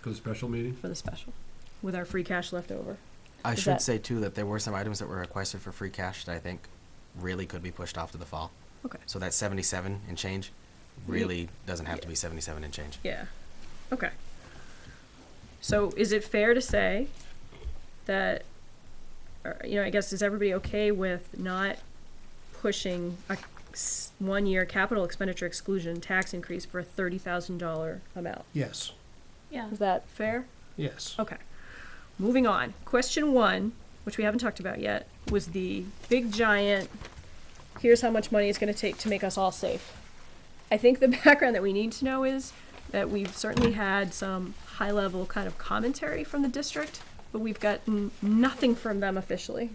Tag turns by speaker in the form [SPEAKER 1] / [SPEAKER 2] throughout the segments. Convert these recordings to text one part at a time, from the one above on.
[SPEAKER 1] For the special meeting?
[SPEAKER 2] for the special, with our free cash left over.
[SPEAKER 3] I
[SPEAKER 2] Is
[SPEAKER 3] should
[SPEAKER 2] that-
[SPEAKER 3] say too that there were some items that were requested for free cash that I think really could be pushed off to the fall.
[SPEAKER 2] Okay.
[SPEAKER 3] So that 77 and change
[SPEAKER 2] Ye-
[SPEAKER 3] really doesn't have to be 77 and change.
[SPEAKER 2] Yeah. Okay. So is it fair to say that, or, you know, I guess is everybody okay with not pushing a s- one-year capital expenditure exclusion tax increase for a thirty thousand dollar amount?
[SPEAKER 4] Yes,
[SPEAKER 5] Yeah.
[SPEAKER 2] Is that fair?
[SPEAKER 4] yes.
[SPEAKER 2] Okay. Moving on. Question one, which we haven't talked about yet, was the big giant. Here's how much money it's going to take to make us all safe. I think the background that we need to know is that we've certainly had some high level kind of commentary from the district, but we've gotten nothing from them officially.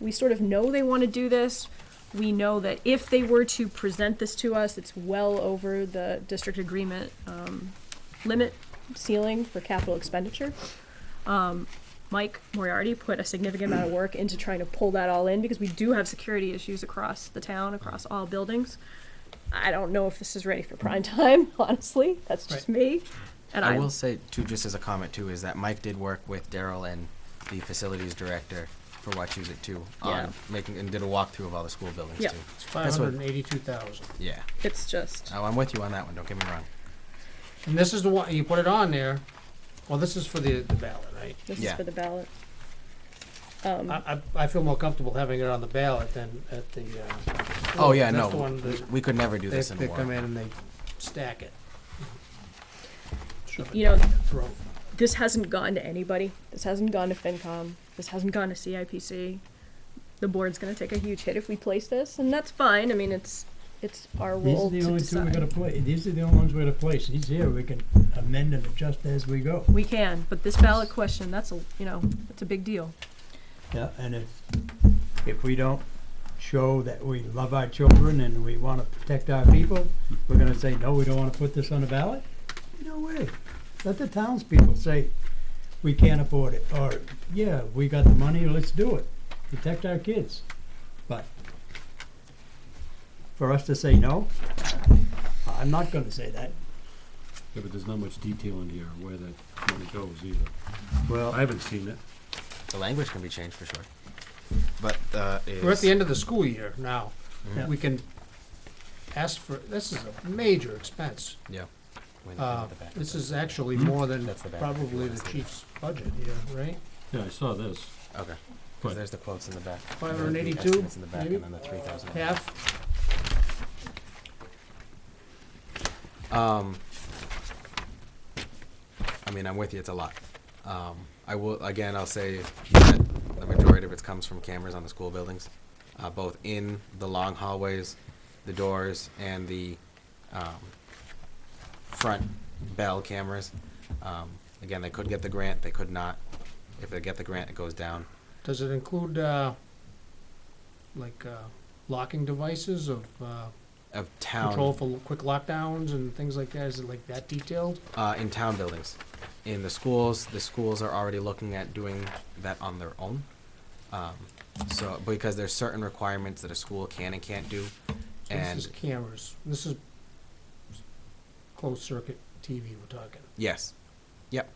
[SPEAKER 2] We sort of know they want to do this. We know that if they were to present this to us, it's well over the district agreement um, limit ceiling for capital expenditure. Um, Mike Moriarty put a significant amount of work into trying to pull that all in because we do have security issues across the town, across all buildings. I don't know if this is ready for prime time, honestly. That's just me. And
[SPEAKER 3] I
[SPEAKER 2] I
[SPEAKER 3] will say too, just as a comment too, is that Mike did work with Daryl and the facilities director for Watch Use It too on
[SPEAKER 2] Yeah.
[SPEAKER 3] making and did a walkthrough of all the school buildings
[SPEAKER 2] Yeah.
[SPEAKER 3] too.
[SPEAKER 4] It's
[SPEAKER 3] That's what-
[SPEAKER 4] 582,000.
[SPEAKER 3] Yeah.
[SPEAKER 2] It's just
[SPEAKER 3] Oh, I'm with you on that one. Don't get me wrong.
[SPEAKER 4] And this is the one, you put it on there, well, this is for the, the ballot, right?
[SPEAKER 2] this is
[SPEAKER 3] Yeah.
[SPEAKER 2] for the ballot. Um,
[SPEAKER 4] I, I, I feel more comfortable having it on the ballot than at the, uh.
[SPEAKER 3] Oh yeah,
[SPEAKER 4] that's
[SPEAKER 3] no,
[SPEAKER 4] the one
[SPEAKER 3] we,
[SPEAKER 4] that
[SPEAKER 3] we could never do
[SPEAKER 4] They,
[SPEAKER 3] this in a
[SPEAKER 4] they come
[SPEAKER 3] war.
[SPEAKER 4] in and they stack it. Shove it
[SPEAKER 2] You know-
[SPEAKER 4] down your throat.
[SPEAKER 2] this hasn't gone to anybody. This hasn't gone to FinCom. This hasn't gone to CIPC. The board's going to take a huge hit if we place this, and that's fine. I mean, it's it's our
[SPEAKER 6] These
[SPEAKER 2] role
[SPEAKER 6] are the
[SPEAKER 2] to
[SPEAKER 6] only two we're
[SPEAKER 2] decide.
[SPEAKER 6] gonna play, these are the only ones we're gonna place, these here, we can amend and adjust as we go.
[SPEAKER 2] We can, but this ballot question, that's a, you know, it's a big deal.
[SPEAKER 6] Yeah, and if, if we don't show that we love our children and we wanna protect our people, we're gonna say, no, we don't wanna put this on the ballot? No way. Let the townspeople say, we can't afford it, or, yeah, we got the money, let's do it. Protect our kids. But for us to say no, I'm not gonna say that.
[SPEAKER 1] Yeah, but there's not much detail in here where that money goes either. I
[SPEAKER 6] Well,
[SPEAKER 1] haven't seen it.
[SPEAKER 3] The language can be changed for sure. But uh,
[SPEAKER 4] We're at
[SPEAKER 3] is-
[SPEAKER 4] the end of the school year now.
[SPEAKER 3] Yeah.
[SPEAKER 4] We can ask for, this is a major expense.
[SPEAKER 3] Yeah. When-
[SPEAKER 4] Uh,
[SPEAKER 3] the back of
[SPEAKER 4] this
[SPEAKER 3] the-
[SPEAKER 4] is actually more than
[SPEAKER 3] That's the back if you
[SPEAKER 4] probably
[SPEAKER 3] wanna
[SPEAKER 4] the
[SPEAKER 3] see
[SPEAKER 4] chief's budget here, right?
[SPEAKER 1] Yeah, I saw this.
[SPEAKER 3] Okay.
[SPEAKER 1] But-
[SPEAKER 3] Because there's the quotes in the back. There's the
[SPEAKER 4] 582,
[SPEAKER 3] estimates in the back
[SPEAKER 4] maybe?
[SPEAKER 3] And then the 3,000.
[SPEAKER 4] Half,
[SPEAKER 3] Um, I mean, I'm with you. It's a lot. Um, I will again. I'll say that the majority of it comes from cameras on the school buildings, uh, both in the long hallways, the doors, and the um, front bell cameras. Um, again, they could get the grant. They could not. If they get the grant, it goes down.
[SPEAKER 4] does it include, uh, like, uh, locking devices of, uh,
[SPEAKER 3] Of town
[SPEAKER 4] control for lo- quick lockdowns and things like that? Is it like that detailed?
[SPEAKER 3] uh, in town buildings. In the schools, the schools are already looking at doing that on their own. Um, so, because there's certain requirements that a school can and can't do,
[SPEAKER 4] So This
[SPEAKER 3] and
[SPEAKER 4] is cameras. This is closed circuit TV we're talking.
[SPEAKER 3] yes, yep.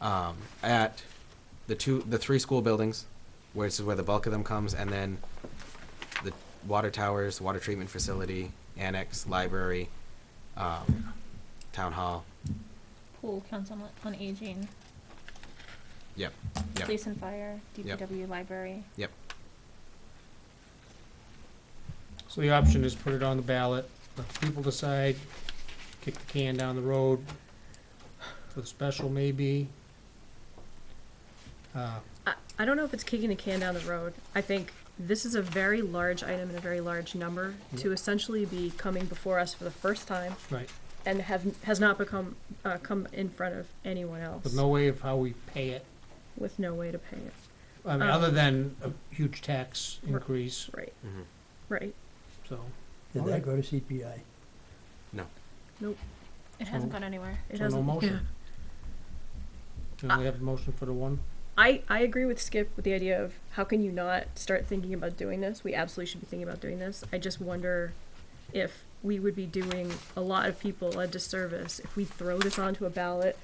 [SPEAKER 3] Um, at the two, the three school buildings, where this is where the bulk of them comes, and then the water towers, water treatment facility, annex, library, um, town hall.
[SPEAKER 5] Pool, council on- on aging,
[SPEAKER 3] Yep, yep.
[SPEAKER 5] police and fire, DPW, library.
[SPEAKER 4] So the option is put it on the ballot, let the people decide, kick the can down the road, for the special maybe. Uh,
[SPEAKER 2] I, I don't know if it's kicking the can down the road. I think this is a very large item and a very large number to essentially be coming before us for the first time
[SPEAKER 4] Right,
[SPEAKER 2] and have, has not become, uh, come in front of anyone
[SPEAKER 4] with
[SPEAKER 2] else
[SPEAKER 4] no way of how we pay it,
[SPEAKER 2] with no way to pay it.
[SPEAKER 4] I mean,
[SPEAKER 2] Um,
[SPEAKER 4] other than a huge tax
[SPEAKER 2] Right.
[SPEAKER 4] increase,
[SPEAKER 2] Right,
[SPEAKER 3] Mhm.
[SPEAKER 2] right.
[SPEAKER 4] so.
[SPEAKER 6] did that go to CPI?
[SPEAKER 5] It hasn't gone anywhere.
[SPEAKER 2] It
[SPEAKER 4] So no
[SPEAKER 2] hasn't-
[SPEAKER 4] motion.
[SPEAKER 2] yeah. Uh,
[SPEAKER 4] Do we only have a motion for the one?
[SPEAKER 2] I, I agree with Skip with the idea of how can you not start thinking about doing this? We absolutely should be thinking about doing this. I just wonder if we would be doing a lot of people a disservice if we throw this onto a ballot